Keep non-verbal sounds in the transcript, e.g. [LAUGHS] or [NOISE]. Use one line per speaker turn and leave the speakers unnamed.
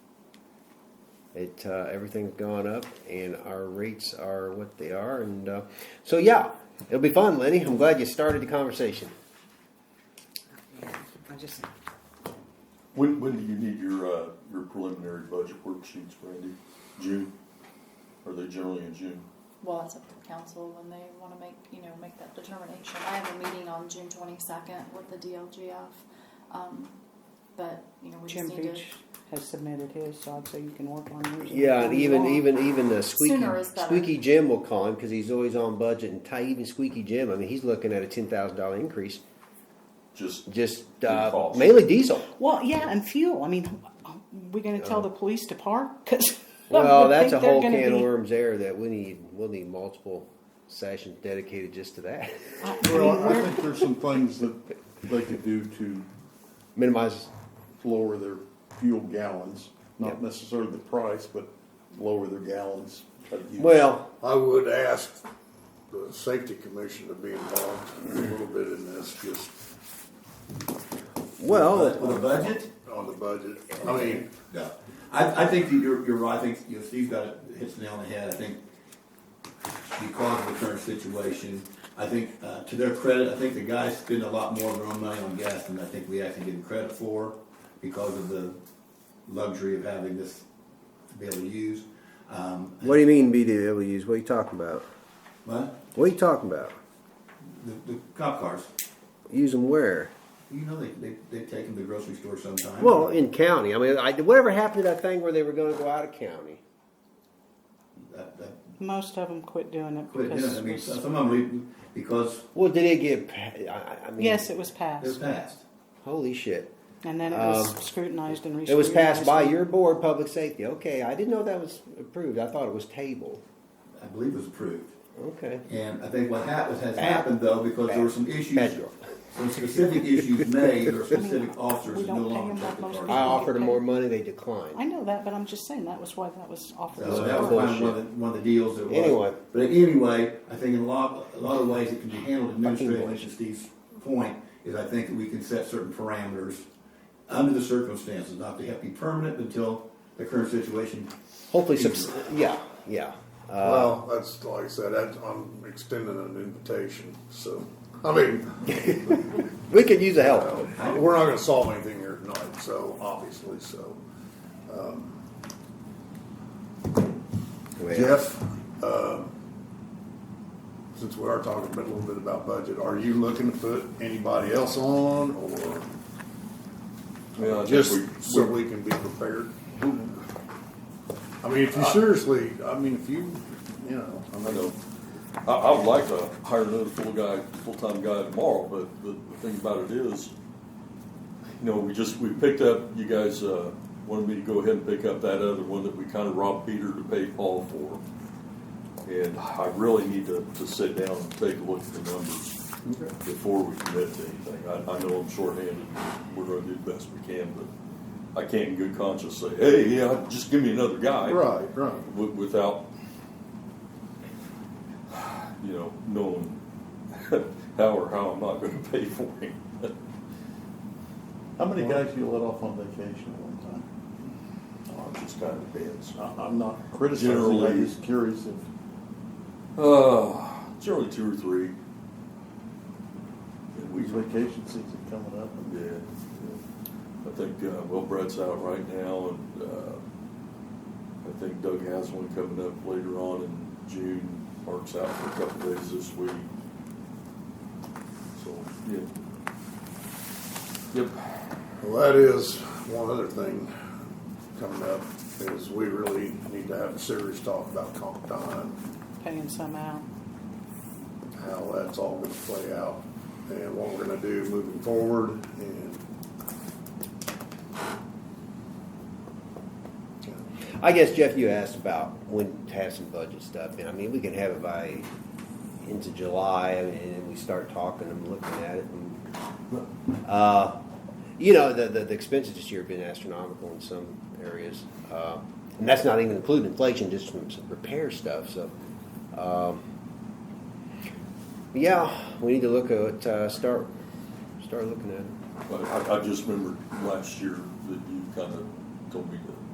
It uh, everything's gone up, and our rates are what they are, and uh, so yeah, it'll be fun, Lenny. I'm glad you started the conversation.
I just,
When, when do you need your, uh, your preliminary budget worksheets, Randy? June? Are they generally in June?
Well, it's up to the council when they wanna make, you know, make that determination. I have a meeting on June twenty-second with the DLGF, um, but, you know, we just
Jim
need to.
Beach has submitted his, so I'd say you can work on yours.
Yeah, and
If you
even
want.
even even uh, squeaky
Sooner is better.
squeaky Jim will call him because he's always on budget and tight. Even squeaky Jim, I mean, he's looking at a ten thousand dollar increase
Just,
just
In
uh,
cost.
mainly diesel.
Well, yeah, and fuel, I mean, are we gonna tell the police to park? 'Cause I
Well,
would
that's a
think they're
whole
gonna
can of
be-
worms there that we need. We'll need multiple sessions dedicated just to that. [LAUGHS]
I- I mean,
Well, I
we're-
think there's some things that they could do to
Minimize.
lower their fuel gallons,
Yep.
not necessarily the price, but lower their gallons of use.
Well,
I would ask the safety commission to be involved a little bit in this, just
well,
With a budget?
on the budget. I mean,
No. I, I think that you're, you're right, I think, you know, Steve got it, hits the nail on the head, I think because of the current situation, I think, uh, to their credit, I think the guys spend a lot more of their own money on gas than I think we actually give them credit for because of the luxury of having this to be able to use. Um,
what do you mean be able to use? What are you talking about?
But
What are you talking about?
the, the cop cars,
Use them where?
you know, they, they, they take them to the grocery store sometimes.
Well, in county. I mean, I, whatever happened to that thing where they were going to go out of county?
That- that-
Most of them quit doing it
Quit doing it. I mean,
because,
some of them, we- because
Well, did it get? pa- I, I mean,
yes, it was
they're
passed,
passed.
Holy shit!
and then it was scrutinized and re
Um, It was passed by your board, public safety. Okay, I didn't know that was approved. I thought it was tabled.
I believe it was approved.
Okay.
And I think what happened, has happened though, because there were some issues,
Federal.
some specific
[LAUGHS]
issues made, or specific officers
We
that
don't
no
pay
longer
them
took
that
the
much.
I
charge.
offered them more money. They
I
declined.
know that, but I'm just saying, that was why that was offered.
So
as
that was
part.
kind of one of the, one of the deals that was.
Anyway.
But anyway, I think in a lot, a lot of ways it can be handled administratively,
Fucking
to Steve's point, is I think that we can set certain parameters under the circumstances, not to have to be permanent until the current situation.
Hopefully, subs- yeah, yeah. Uh,
well, that's, like I said, that's, I'm extending an invitation, so, I mean,
We could use the help.
we're not gonna solve anything here tonight, so, obviously, so. Jeff, uh, since we are talking a bit- a little bit about budget, are you looking to put anybody else on, or?
yeah, I think we-
Just so we can be prepared. Uh, I mean, if you seriously, I mean, if you, you know, I
I
mean,
know. I, I would like to hire another full guy, full-time guy tomorrow, but the, the thing about it is, you know, we just, we picked up, you guys, uh, wanted me to go ahead and pick up that other one that we kind of robbed Peter to pay Paul for. And I really need to, to sit down and take a look at the numbers before we commit to anything. I, I know I'm shorthanded, we're gonna do the best we can, but I can't in good conscience say, hey, yeah, just give me another guy
right, right.
wi- without, you know, knowing how or how I'm not going to [LAUGHS] pay for him.
How many guys you let off on vacation at one time?
Oh, it just kind of depends.
I- I'm not criticizing,
Generally-
I'm just curious if,
Uh, generally two or three. And we,
with vacation season coming up.
yeah, yeah. I think, uh, well, Brett's out right now, and uh, I think Doug has one coming up later on in June. Mark's out for a couple days this week. So, yeah. Yep.
Well, that is one other thing coming up, is we really need to have a serious talk about comp time,
Paying some out.
how that's all gonna play out, and what we're gonna do moving forward, and.
I guess Jeff, you asked about when to have some budget stuff, and I mean, we can have it by into July, and then we start talking and looking at it, and, uh, you know, the, the, the expenses this year have been astronomical in some areas, uh, and that's not even including inflation, just from some repair stuff, so, um, yeah, we need to look at, uh, start, start looking at it.
But I, I just remembered last year that you kind of told me